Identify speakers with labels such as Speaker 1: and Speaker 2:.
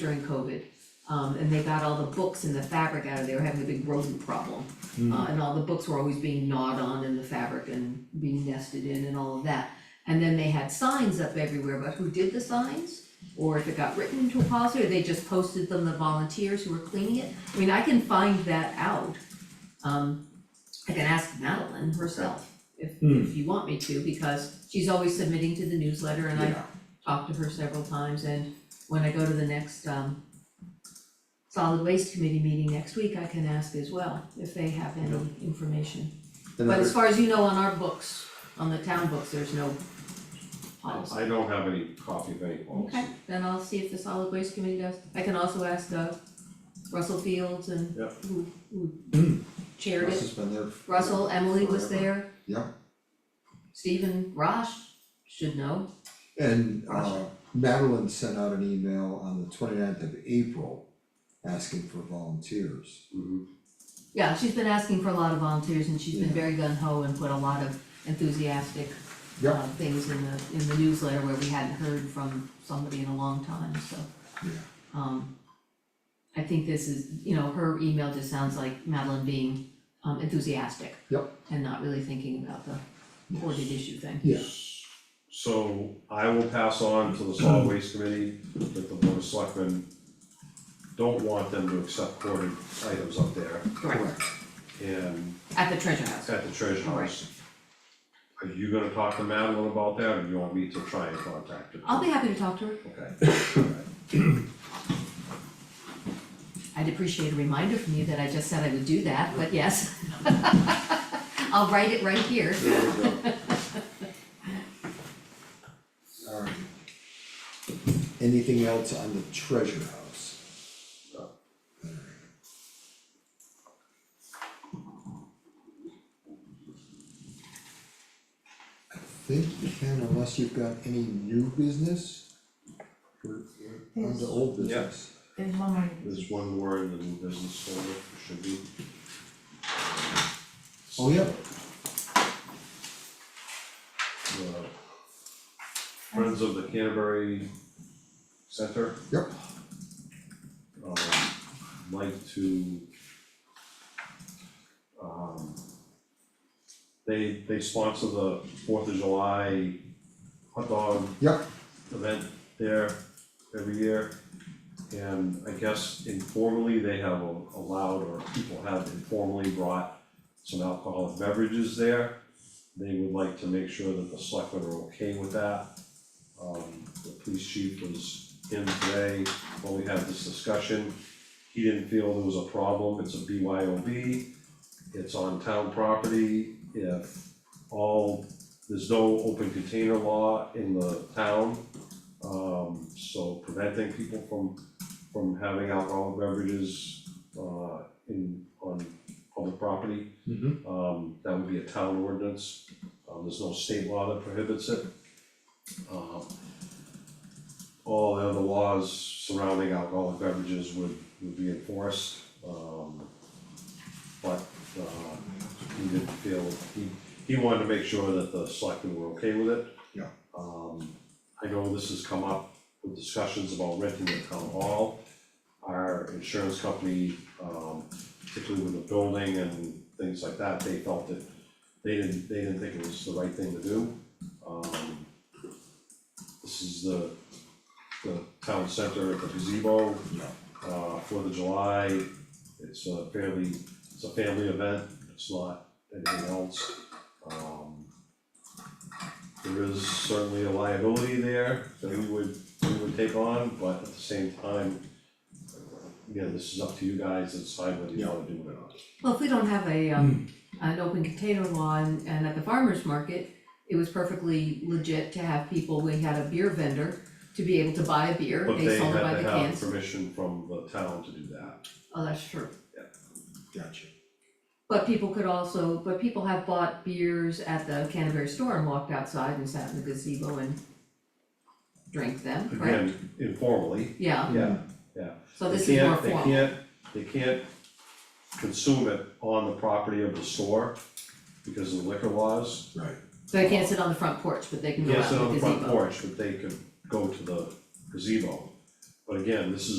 Speaker 1: during COVID. Um, and they got all the books and the fabric out of, they were having a big rodent problem.
Speaker 2: Hmm. Mm.
Speaker 1: Uh, and all the books were always being gnawed on in the fabric and being nested in and all of that. And then they had signs up everywhere, but who did the signs? Or if it got written into a policy, or they just posted them, the volunteers who were cleaning it? I mean, I can find that out. Um, I can ask Madeline herself if, if you want me to, because she's always submitting to the newsletter and I
Speaker 2: Yeah.
Speaker 1: talked to her several times and when I go to the next um solid waste committee meeting next week, I can ask as well if they have any information. But
Speaker 2: Another-
Speaker 1: as far as you know, on our books, on the town books, there's no policy.
Speaker 3: I don't have any copy of any policy.
Speaker 1: Okay, then I'll see if the solid waste committee does. I can also ask uh Russell Fields and
Speaker 3: Yeah.
Speaker 1: who who
Speaker 2: Mm.
Speaker 1: chaired it.
Speaker 2: Russ has been there. for-
Speaker 1: Russell, Emily was there.
Speaker 2: Yeah.
Speaker 1: Stephen Rosh should know.
Speaker 2: And uh Madeline sent out an email on the 29th of April asking for volunteers.
Speaker 3: Mhm.
Speaker 1: Yeah, she's been asking for a lot of volunteers and she's been
Speaker 2: Yeah.
Speaker 1: very gun ho and put a lot of enthusiastic
Speaker 2: Yeah.
Speaker 1: uh, things in the, in the newsletter where we hadn't heard from somebody in a long time, so.
Speaker 2: Yeah.
Speaker 1: Um, I think this is, you know, her email just sounds like Madeline being um enthusiastic.
Speaker 2: Yep.
Speaker 1: And not really thinking about the hoarded issue thing.
Speaker 2: Yeah.
Speaker 3: So I will pass on to the solid waste committee that the board of selectmen don't want them to accept hoarded items up there
Speaker 1: Correct,
Speaker 3: and
Speaker 1: at the treasure house.
Speaker 3: at the treasure house. Are you gonna talk to Madeline about that or do you want me to try and contact her?
Speaker 1: I'll be happy to talk to her.
Speaker 3: Okay, alright,
Speaker 1: I'd appreciate a reminder from you that I just said I would do that, but yes. I'll write it right here.
Speaker 2: There we go. Alright. Um, Anything else on the treasure house? I think you can unless you've got any new business. We're we're on to old
Speaker 3: Yeah.
Speaker 2: business.
Speaker 4: There's one more.
Speaker 3: there's one more in the new business folder, should be.
Speaker 2: Oh, yeah,
Speaker 3: The Friends of the Canterbury Center.
Speaker 2: Yep.
Speaker 3: um, like to um, they they sponsor the Fourth of July hot dog
Speaker 2: Yep.
Speaker 3: event there every year. And I guess informally, they have allowed, or people have informally brought some alcoholic beverages there. They would like to make sure that the selectmen are okay with that. Um, the police chief was in today when we had this discussion. He didn't feel there was a problem, it's a BYOB, it's on town property, if all, there's no open container law in the town. Um, so preventing people from, from having alcohol beverages, uh, in, on public property.
Speaker 2: Mhm.
Speaker 3: Um, that would be a town ordinance, um, there's no state law that prohibits it. Um, all the other laws surrounding alcoholic beverages would, would be enforced, um, but, uh, he didn't feel, he, he wanted to make sure that the selectmen were okay with it.
Speaker 2: Yeah.
Speaker 3: Um, I know this has come up with discussions about renting the town hall. Our insurance company, um, particularly with the building and things like that, they felt that they didn't, they didn't think it was the right thing to do. Um, this is the, the town center at the gazebo.
Speaker 2: Yeah.
Speaker 3: Uh, Fourth of July, it's a fairly, it's a family event, it's not anything else. Um, there is certainly a liability there that we would, we would take on, but at the same time, again, this is up to you guys, to decide whether you wanna do it or not.
Speaker 1: Well, if we don't have a, um,
Speaker 3: Hmm.
Speaker 1: an open container law and, and at the farmer's market, it was perfectly legit to have people, we had a beer vendor to be able to buy a beer,
Speaker 3: But
Speaker 1: they
Speaker 3: they
Speaker 1: sold it by
Speaker 3: had
Speaker 1: the
Speaker 3: to
Speaker 1: cans.
Speaker 3: have permission from the town to do that.
Speaker 1: Oh, that's true.
Speaker 2: Gotcha.
Speaker 1: But people could also, but people have bought beers at the Canterbury store and walked outside and sat in the gazebo and drank them, right?
Speaker 3: Again, informally,
Speaker 1: Yeah,
Speaker 3: yeah,
Speaker 1: so
Speaker 3: they
Speaker 1: this is more
Speaker 3: can't, they
Speaker 1: formal.
Speaker 3: can't, they can't consume it on the property of the store because of the liquor laws.
Speaker 2: Right.
Speaker 1: So they can't sit on the front porch, but they can go out
Speaker 3: Yes,
Speaker 1: in the
Speaker 3: on the
Speaker 1: gazebo.
Speaker 3: front porch, but they could go to the gazebo. But again, this is